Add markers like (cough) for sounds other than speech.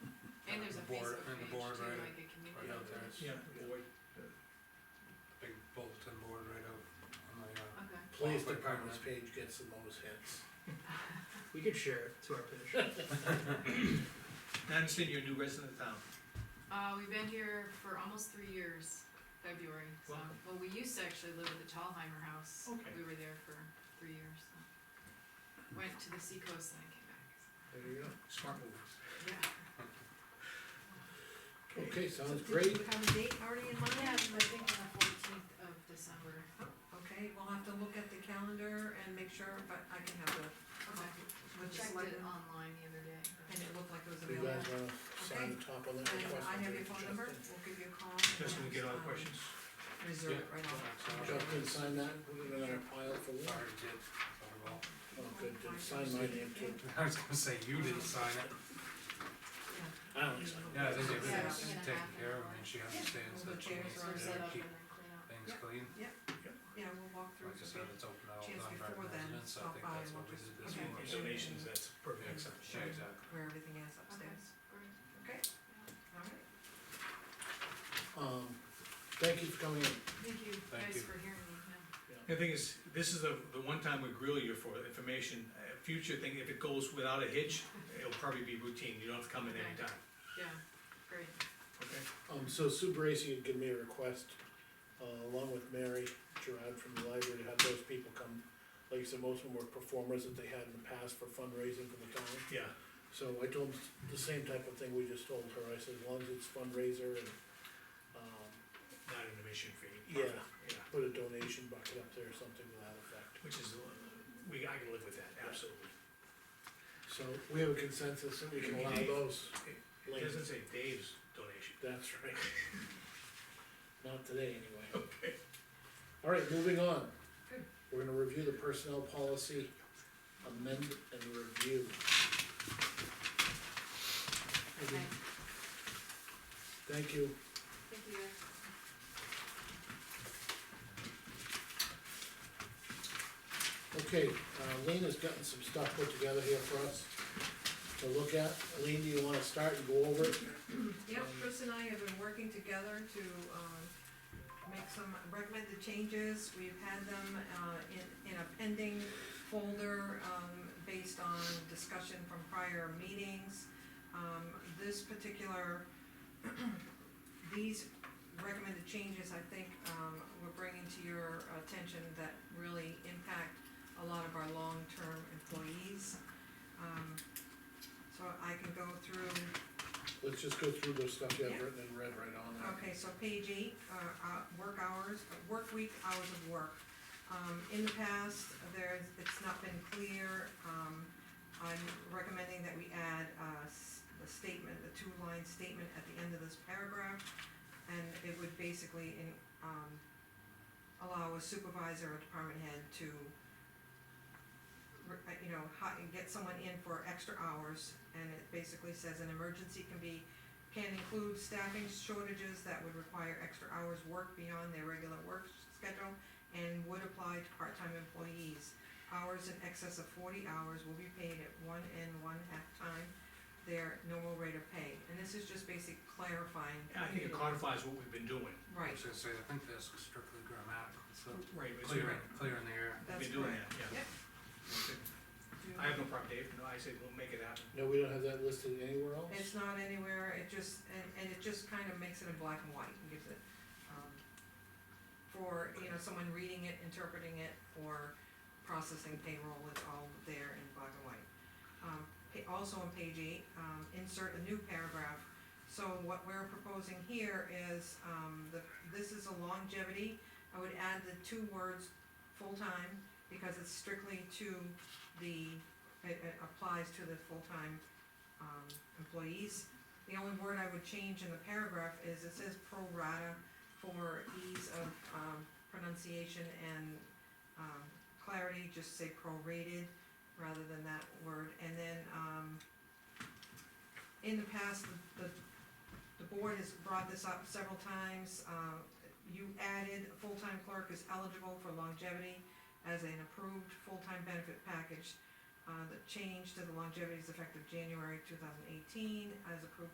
And there's a the board- Facebook and the page board, too, right- like a community. Right out there, it's Yeah, a boy, big bulletin board right out on the, uh, Okay, Police Well, department's but- page gets the most hits. We could share it to our page. I understand you're a new resident of town. uh, we've been here for almost three years, February, so, Wow. well, we used to actually live at the Tallheimer house. Okay. We were there for three years, so. Went to the seacoast and I came back, so, There you Smart move. yeah. go. Okay, So sounds did great. you have a date already in mind? Yeah, I think on the fourteenth of December, Okay, we'll have to look at the calendar and make sure, but I can have a, okay, I with the checked it selectmen, online the other day. and it looked like it was Do you guys available. wanna sign the top of that And request? I have your Justin? phone number, we'll give you a call. Just when we get all the um, questions. Reserve it right off. Yeah. Justin, sign that, put it in our pile for Lynn. Sorry, Jim, sorry, well, Oh, good, good. sign my name too. (laughs) I was gonna say, you didn't sign it. I don't sign it. Yeah, I think everything's Yeah. taken care of, and she understands Well, that the she needs chairs are Or to set up and keep then clean up. things Yeah. clean. Yeah, we'll walk through. Like I the said, bit. it's open to all Chance before non-resident then, residents, I stop think by that's and what we'll we did just- this okay. morning. Donations, that's perfect. Yeah, Yeah, exactly. Where everything is upstairs, Great. okay? All right. Um, thank you for coming in. Thank you Thank guys you. for hearing me, yeah. The thing is, this is the, the one time we grill you for information, Uh, future thing, if it goes without a hitch, it'll probably be routine, you don't have to come in Okay. anytime, Yeah, great. okay? Um, so Sue Bracy had given me a request, uh, along with Mary Gerard from the library, to have those people come. Like you said, most of them were performers that they had in the past for fundraising for the town. Yeah, So I told them the same type of thing we just told her, I said, as long as it's fundraiser and, um, not an admission fee. Yeah. Yeah, put a donation bucket up there or something to that effect. which is, we, I can live with that, absolutely. So we have a consensus that we can allow those, It doesn't say Dave's donation. that's (laughs) right. Not today anyway. Okay. All right, moving on. We're gonna review the personnel policy, amend and review. Okay. Thank you. Thank you guys. Okay, uh, Lean has gotten some stuff put together here for us to look at. Lean, do you wanna start and go over it? Yep, Chris and I have been working together to, um, make some recommended changes, we've had them, uh, in, in a pending folder, um, based on discussion from prior meetings. Um, this particular, (clears throat) these recommended changes, I think, um, we're bringing to your attention that really impact a lot of our long-term employees. Um, so I can go through Let's just go through the stuff you have Yeah. written and read right on there. Okay, so page eight, uh, uh, work hours, uh, work week, hours of work. Um, in the past, there's, it's not been clear, um, I'm recommending that we add, uh, s- the statement, the two-line statement at the end of this paragraph. And it would basically in, um, allow a supervisor or department head to, re- uh, you know, hi, get someone in for extra hours. And it basically says an emergency can be can include staffing shortages that would require extra hours work beyond their regular work schedule and would apply to part-time employees. Hours in excess of forty hours will be paid at one and one-half time their normal rate of pay. And this is just basic clarifying. I think it codifies what we've been doing. I Right, was gonna say, I think that's strictly grammatical, so Right. it's- clear, clear in the air. that's Been doing correct. that, yeah. Yep. Okay. Do- I have no problem, Dave, no, I say we'll make it happen. No, we don't have that listed anywhere else? It's not anywhere, it just, and, and it just kind of makes it in black and white and gives it, um, for, you know, someone reading it, interpreting it, or processing payroll, it's all there in black and white. Um, pa- also on page eight, um, insert a new paragraph. So what we're proposing here is, um, the, this is a longevity, I would add the two words full-time, because it's strictly to the, it, it applies to the full-time um, employees. The only word I would change in the paragraph is it says pro rata for ease of, um, pronunciation and, um, clarity, just say prorated rather than that word. And then, um, in the past, the, the board has brought this up several times. Uh, you added, full-time clerk is eligible for longevity as an approved full-time benefit package uh, the change to the longevity is effective January two thousand eighteen, as approved